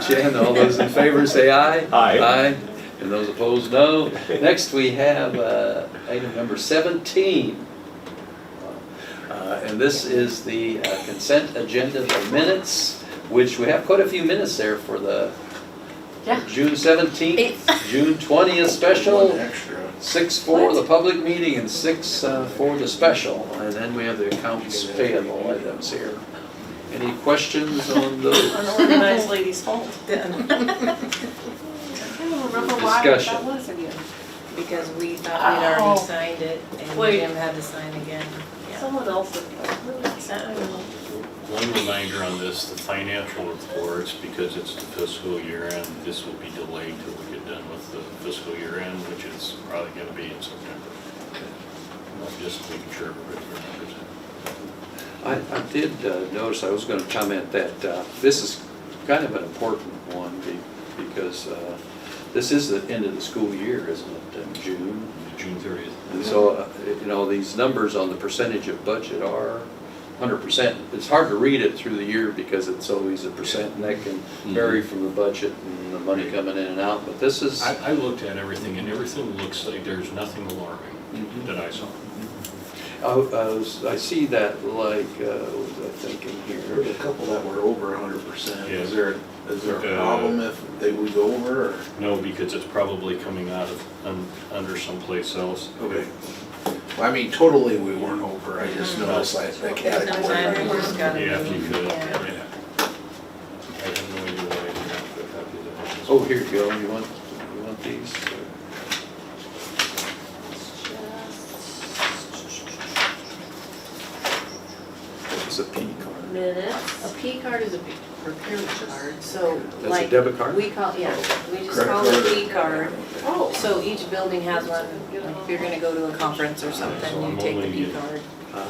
Jen, all those in favor say aye. Aye. Aye, and those opposed, no. Next, we have uh, item number 17. Uh, And this is the uh, consent agenda for minutes, which we have quite a few minutes there for the Yeah. June 17th, Eighth. June 20th special, One extra. six for the What? public meeting and six uh, for the special. And then we have the accounts payable items here. Any questions on those? Unorganized lady's fault then, I don't remember why that Discussion. was again. because we thought we'd already Oh. signed it and Wait. Jim had to sign again. Yeah. Someone else. had- I don't know. One reminder on this, the financial reports, because it's the fiscal year end, this will be delayed till we get done with the fiscal year end, which is probably gonna be in September. I'm Just making sure everybody remembers that. I, I did uh, notice, I was going to comment that uh, this is kind of an important one be- because uh, this is the end of the school year, isn't it, in June? June thirtieth. And so, uh, you know, these numbers on the percentage of budget are 100%. It's hard to read it through the year because it's always a percent and that can vary from the budget and the money coming in and out, but this is, I, I looked at everything and everything looks like there's nothing alarming Mhm. that I saw. I was- I see that like, uh, what was I thinking There was here? a couple that were over hundred percent. Yeah. Is there, is there a Uh, problem if they would go over or? No, because it's probably coming out of, un- under someplace else. Okay. I mean, totally we weren't over. I Mm-hmm. just noticed like that Sometimes we category. just gotta. Yeah, if you could, Yeah. yeah. I have no idea why I didn't have a copy of that. Oh, here you go, you want, you want these? or- It's a P card. Minutes. A P card is a p- procurement card, so That's a like. debit card? We call, yeah, we just Credit call it a card. P card. Oh. So each building has one, like if you're gonna go to a conference or So something, I'm you take the only P in- card Uh,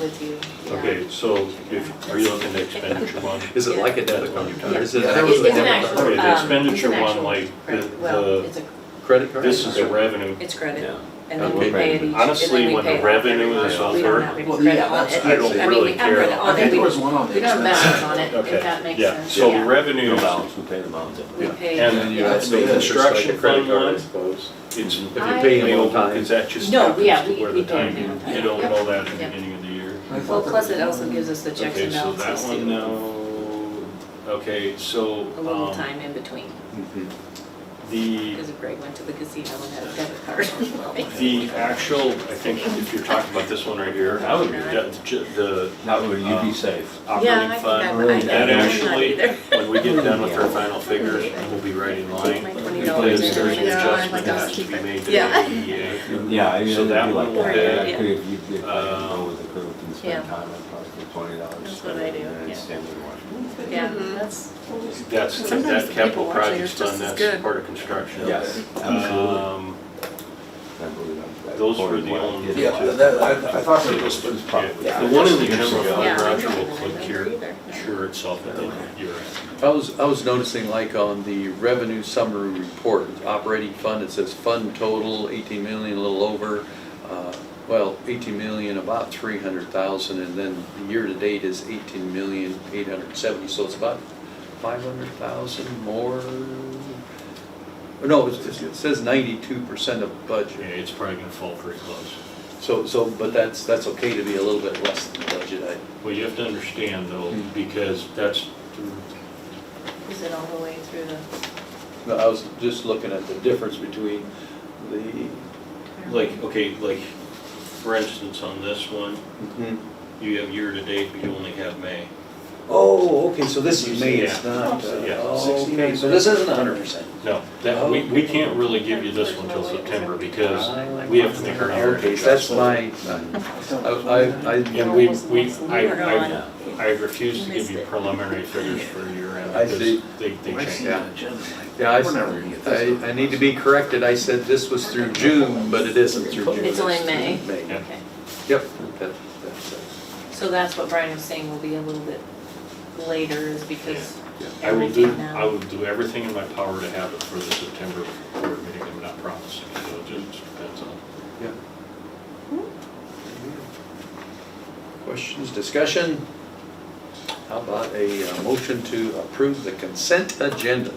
with you. yeah. Okay, so if, are you looking at expenditure one? Is it like a debit Yeah. card? Yeah. Is it Yeah, there was actually It's a an debit actual, um, card? Okay, the it's an expenditure one, actual like, credit. the- Well, the- it's a, Credit card? This is the revenue. it's credit, Yeah. and then we Okay. pay it each, and Honestly, then we when pay the it off every revenue month. is We don't over- have any Well, credit yeah, on that's- it. I don't I mean, really we have care. credit I on it, think there we, was one on the we don't have expense balance side. on it, Okay, if that makes yeah, sense, so yeah. revenue No is- balance, we pay the balance. We Yeah. pay. And And you Yeah, have it's to pay the interest like a construction credit fund card, one. I suppose. It's If you pay them on payable, time. because that just No, yeah, happens to we- where we the pay time, them on time. you don't Yep. know that at the Yep. beginning of the year. Well, plus it also gives us the checks Okay, and so that balances one, too, no, okay, so, a little um, time in between. the, Because if Greg went to the casino and had a debit card. the actual, I think if you're talking about this one right here, I would, that- ju- the That would, you'd be safe. operating fund, I- that I'm not actually, when we get done with our final figures, we'll be right in line. My twenty dollars Because there's an in. adjustment that has to be made to the E Yeah. DDA. Yeah, I mean, So it'd that be one like will that. pay. I could, if you, if I could Um, go with the group and yeah. spend time, I'd probably put twenty dollars. That's what I do, yeah. Yeah, that's, That's, Sometimes that the people capital watching projects is just fund, as that's good. part of construction. Yes, absolutely. Um, I believe I'm- I those were poured the one. only It's two. just- Yeah, that, I, I thought there It's was, yeah. probably. The one in the Years general ago. Yeah. fund, Roger will click here, sure itself at the year end. I was, I was noticing like on the revenue summary report, operating fund, it says fund total eighteen million, a little over. uh, Well, eighteen million, about three hundred thousand, and then the year-to-date is eighteen million, eight hundred seventy, so it's about five hundred thousand more. No, it's- it says ninety-two percent of Yeah, budget. it's probably gonna fall pretty close. So, so, but that's, that's okay to be a little bit less than the budget, I, Well, you have to understand though, Hmm. because that's, is it all the way through the? No, I was just looking at the difference between the, like, okay, like, for instance, on this one, hmm, you have year-to-date, but you only have May. oh, okay, so this is May, it's Yeah. not, uh, Yeah. oh, okay, so this isn't hundred percent. No, that, we, we can't really give you this one till September because we have to make our own Okay, so that's adjustment. my, I, I, I- And we, we, I, We're I, on. I refuse to give you preliminary figures for your end. I see. because They, they I see change. that agenda, like, yeah, I, we're never gonna get this. I, I need to be corrected, I said this was through June, but it isn't through June. It's only May. through May, Okay, yep, that, that's, it. so that's what Brian was saying will be a little bit later is because I will do, everything I now. will do everything in my power to have it for the September board meeting, I'm not promising, so it just depends on. yeah. Questions, discussion? Uh, How about a uh, motion to approve the consent agenda?